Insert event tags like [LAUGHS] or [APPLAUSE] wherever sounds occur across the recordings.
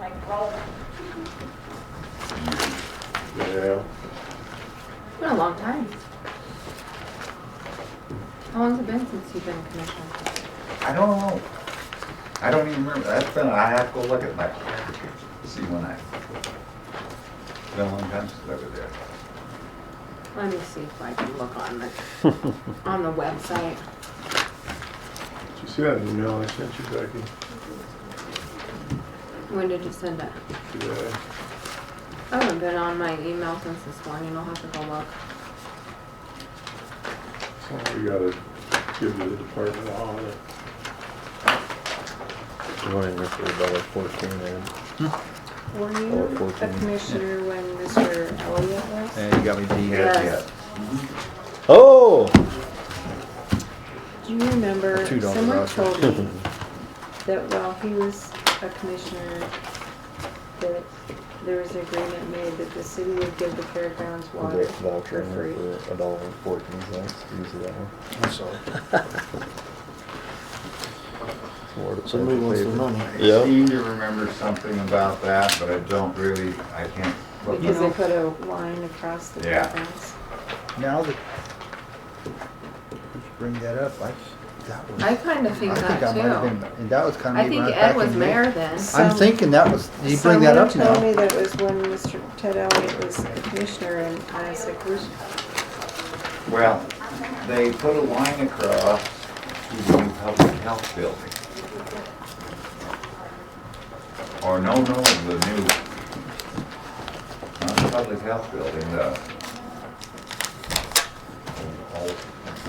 like rolling. Yeah, It's been a long time. How long's it been since you've been a commissioner? I don't know. I don't even remember. That's been, I have to go look at my, see when I. It's been a long time since I was there. Let me see if I can look on the, on the website. Did you see that email I sent you, Becky? When did you send it? Today? I haven't been on my email since this morning. I'll have to go look. So we gotta give to the department on it. You went in there for about like fourteen then. Were Or you a 14. commissioner when Mr. Elliott was? And you got me beat. Yes. Oh! Do you remember, Two dollars someone voucher. [LAUGHS] told me that while he was a commissioner, that there was an agreement made that the city would give the fairgrounds water That voucher for in free. there for a dollar and fourteen cents. Use that one. So where to put Somebody the wants the paper. money. I Yeah. seem to remember something about that, but I don't really, I can't. look Because they up. put a line across the Yeah. fairgrounds. Now that, you bring that up, I, that was. I kind of think I that I might have too. been- And that was kind of. I think Ed was mayor then. I'm Some- thinking that was, you bring that up Someone told me now. that was when Mr. Ted Elliott was a commissioner and I was like, where's, Well, they put a line across to the new public health building. Or no, no, the new, not the public health building, the, old-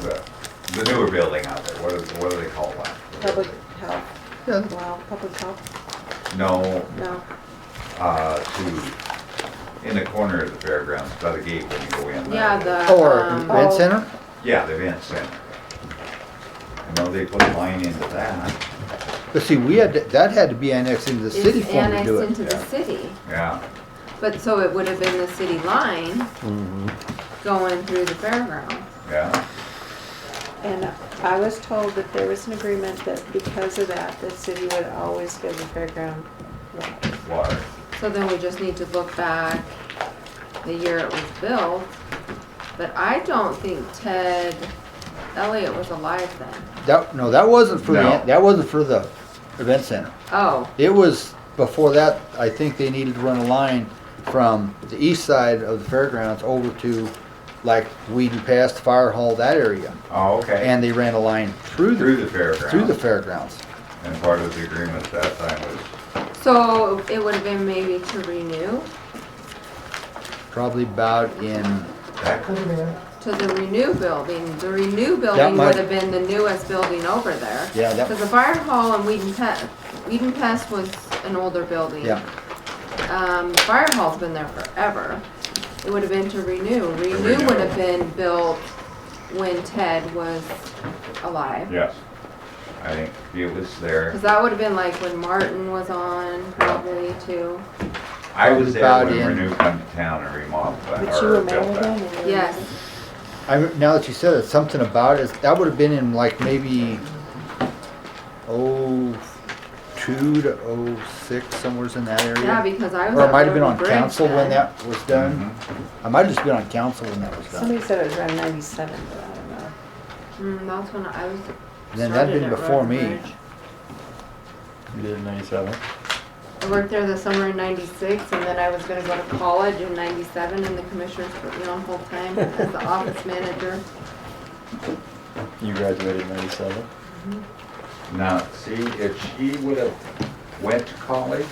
the- the newer building out there, what is, what do they call that? public health, Yeah, wow, public health, No, no. uh, to, in the corner of the fairgrounds, by the gate when you go in. that Yeah, way. the, Or um, event center? Yeah, the event center. I know they put a line into that, But see, we had, to- that had to be annexed into the city is for oh, them to annexed do it. into the yeah. city. yeah. But so it would have been the city line Mm-hmm. Mhm. going through the fairground. Yeah, And I was told that there was an agreement that because of that, the city would always give the fairground water. water. So then we just need to look back the year it was built. But I don't think Ted Elliott was alive then. That, no, that wasn't for the, No. that wasn't for the event center. Oh, It was, before that, I think they needed to run a line from the east side of the fairgrounds over to like Whedon Pass, the Fire Hall, that area. Oh, okay. And they ran a line through Through the, the through the fairgrounds. fairgrounds. And part of the agreement at that time was, so it would have been maybe to renew, Probably about in, that could have been, to the renew building. The renew That building might- would have been the newest building over there. Yeah, that- Because the fire hall and Whedon Pass, Whedon Pass was an older building. yeah, Um, the fire hall's been there forever. It would have been to renew. Renew Renew. would have been built when Ted was alive. yes. I think it was there. Cause that would have been like when Martin was on probably too. I was there About when in- Renew come to town and remodeled But that, you or built remember that. them? and you Yes, I, re- now that you said it, something about it, that would have been in like maybe oh two to oh six, somewhere's in that area. yeah, because I was. Or at it might have been Roden on Bridge council when then. that was done. Mhm. I might have just been on council when that was done. Somebody said it was around ninety-seven, but I don't know. Mm, that's when I was. Then that'd started been at before Roden me. Bridge. You did ninety-seven. I worked there the summer in ninety-six and then I was gonna go to college in ninety-seven and the commissioners put me on full-time as the office manager. You graduated ninety-seven. Now, see, if she would have went to college,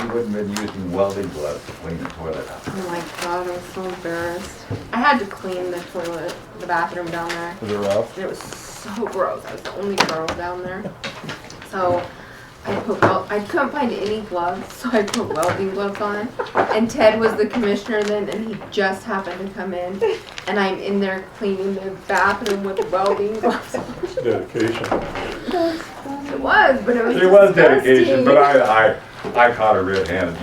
she wouldn't have been using welding gloves to clean the toilet up. Oh my god, I was so embarrassed. I had to clean the toilet, the bathroom down there. Was it rough? And it was so gross. I was the only girl down there. So I put wel- I couldn't find any gloves, [LAUGHS] so I put welding gloves on. And Ted was the commissioner then, and he just happened to come in, and I'm in there cleaning the bathroom with welding gloves. It's dedication. It was, but it was. It was disgusting. dedication, but I, uh, I, I caught a red handed.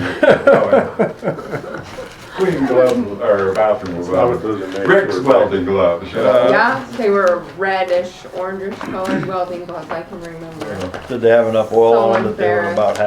Clean gloves, or bathroom It's not what those are made gloves. Rick's for. welding gloves. uh, Yeah, they were reddish, orangish colored welding gloves. I can remember. Did they have enough oil So on that they were embarrassed. about